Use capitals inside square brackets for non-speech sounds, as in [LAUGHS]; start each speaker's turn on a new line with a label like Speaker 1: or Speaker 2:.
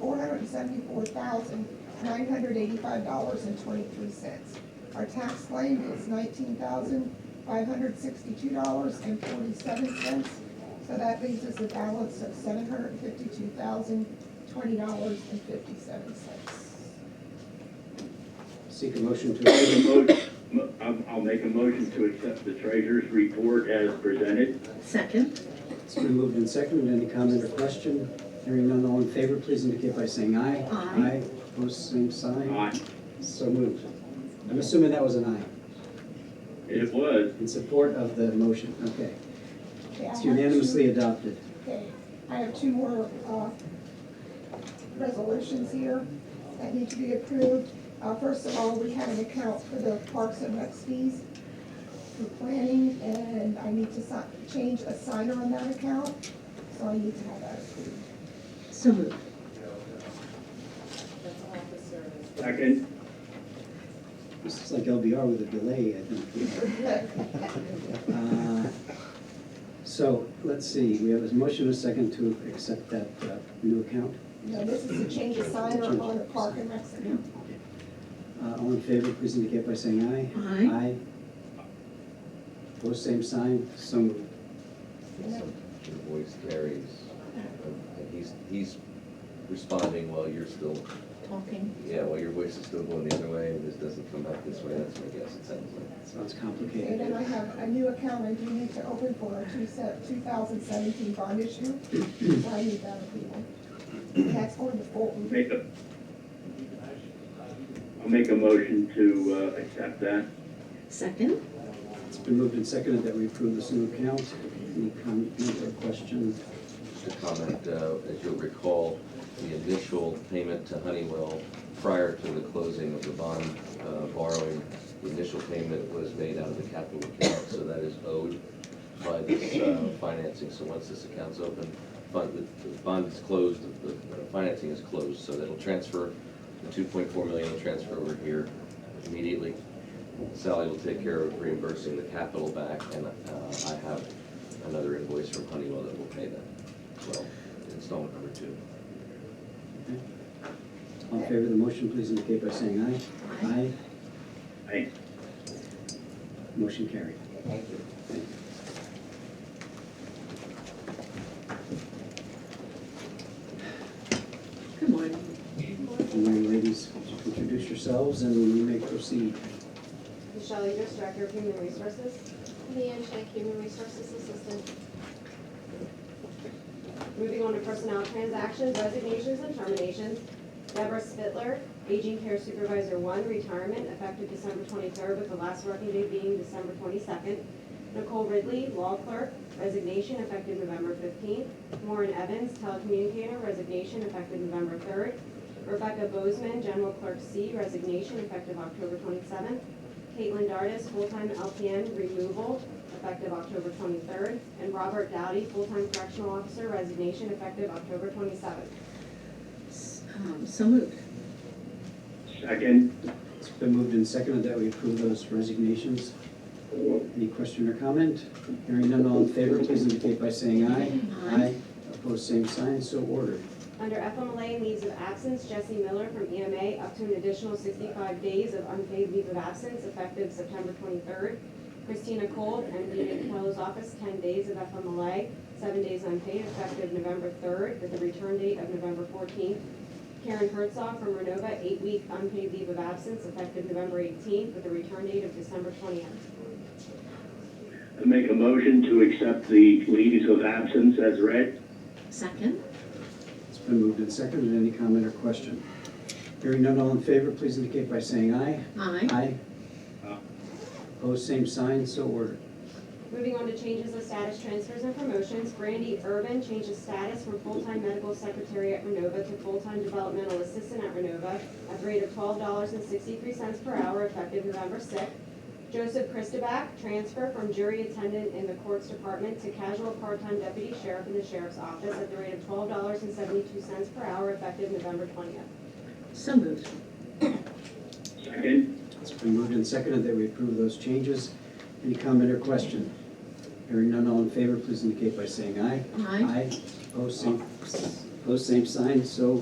Speaker 1: hundred seventy-four thousand, nine hundred eighty-five dollars and twenty-three cents. Our tax claim is nineteen thousand, five hundred sixty-two dollars and forty-seven cents. So that leaves us a balance of seven hundred fifty-two thousand, twenty dollars and fifty-seven cents.
Speaker 2: Seek a motion to
Speaker 3: I'll make
Speaker 2: approve.
Speaker 3: a motion- mo- I'll- I'll make a motion to accept the treasurer's report as presented.
Speaker 4: Second.
Speaker 2: It's been moved and seconded. Any comment or question? Hearing none, all in favor, please indicate by saying aye.
Speaker 4: Aye.
Speaker 2: Aye, opposed, same sign.
Speaker 3: Aye.
Speaker 2: So moved. I'm assuming that was an aye,
Speaker 3: It was.
Speaker 2: in support of the motion, okay.
Speaker 1: Okay, I
Speaker 2: It's
Speaker 1: have
Speaker 2: unanimously adopted.
Speaker 1: Okay, I have two more, uh, resolutions here that need to be approved. Uh, first of all, we have an account for the parks and recs fees for planning, and I need to si- change a signer on that account, so I need to have that approved.
Speaker 4: So moved.
Speaker 3: Second.
Speaker 2: This is like LBR with a delay, I think.
Speaker 1: [LAUGHS]
Speaker 2: Uh, So, let's see, we have a motion and a second to accept that uh, new account.
Speaker 1: No, this is to change a signer on the park and recs account.
Speaker 2: Uh, All in favor, please indicate by saying aye.
Speaker 4: Aye.
Speaker 2: Opposed, same sign, so moved.
Speaker 5: So Your voice carries, and he's, he's responding while you're still,
Speaker 4: Talking.
Speaker 5: yeah, while your voice is still going the other way, and this doesn't come back this way, that's my guess, it sounds like.
Speaker 2: Sounds
Speaker 1: And then I
Speaker 2: complicated.
Speaker 1: have a new account I do need to open for a two two thousand seventeen bond issue, so I need that approval. And That's going to Fulton.
Speaker 3: Make a, I'll make a motion to uh, accept that.
Speaker 4: Second.
Speaker 2: It's been moved and seconded that we approve this new account. Any comment or question?
Speaker 5: To comment, uh, as you'll recall, the initial payment to Honeywell prior to the closing of the bond uh, borrowing, the initial payment was made out of the capital account, so that is owed by this uh, financing. So once this account's open, fund, the the bond is closed, the the financing is closed, so that'll transfer, the two point four million will transfer over here immediately. Sally will take care of reimbursing the capital back, and uh, I have another invoice from Honeywell that will pay that as well, installment number two.
Speaker 2: All in favor of the motion, please indicate by saying aye. Aye.
Speaker 3: Aye.
Speaker 2: Motion carried.
Speaker 1: Thank you.
Speaker 4: Good morning.
Speaker 2: And then, ladies, introduce yourselves and you may proceed.
Speaker 6: Michelle Eaters, Director of Human Resources.
Speaker 7: Leanne Schick, Human Resources Assistant.
Speaker 6: Moving on to personnel transactions, resignations, and terminations. Deborah Spittler, Aging Care Supervisor One, retirement, effective December twenty-third, with the last working day being December twenty-second. Nicole Ridley, Law Clerk, resignation effective November fifteenth. Warren Evans, Telecommunicator, resignation effective November third. Rebecca Bozeman, General Clerk C, resignation effective October twenty-seventh. Caitlin Dardis, full-time LPN, removal, effective October 23rd, and Robert Dowdy, full-time correctional officer, resignation effective October 27th.
Speaker 4: S- um, So moved.
Speaker 3: Second.
Speaker 2: It's been moved and seconded that we approve those resignations. Any question or comment? Hearing none, all in favor, please indicate by saying aye.
Speaker 4: Aye.
Speaker 2: Opposed, same sign, so ordered.
Speaker 6: Under FMLA leaves of absence, Jesse Miller from EMA up to an additional 65 days of unpaid leave of absence effective September 23rd. Christina Cole, MD at Kello's office, 10 days of FMLA, seven days unpaid effective November 3rd with a return date of November 14th. Karen Herzog from Renova, eight-week unpaid leave of absence effective November 18th with a return date of December 20th.
Speaker 3: I make a motion to accept the leaves of absence as read.
Speaker 4: Second.
Speaker 2: It's been moved and seconded. Any comment or question? Hearing none, all in favor, please indicate by saying aye.
Speaker 4: Aye.
Speaker 3: Aye.
Speaker 2: Opposed, same sign, so ordered.
Speaker 6: Moving on to changes of status transfers and promotions, Brandy Urban changes status from full-time medical secretary at Renova to full-time developmental assistant at Renova at the rate of twelve dollars and sixty-three cents per hour effective November sixth. Joseph Christoback, transfer from jury attendant in the courts department to casual part-time deputy sheriff in the sheriff's office at the rate of twelve dollars and seventy-two cents per hour effective November twentieth.
Speaker 4: So moved.
Speaker 3: Second.
Speaker 2: It's been moved and seconded that we approve those changes. Any comment or question? Hearing none, all in favor, please indicate by saying aye.
Speaker 4: Aye.
Speaker 2: Aye. Opposed, same, opposed, same sign, so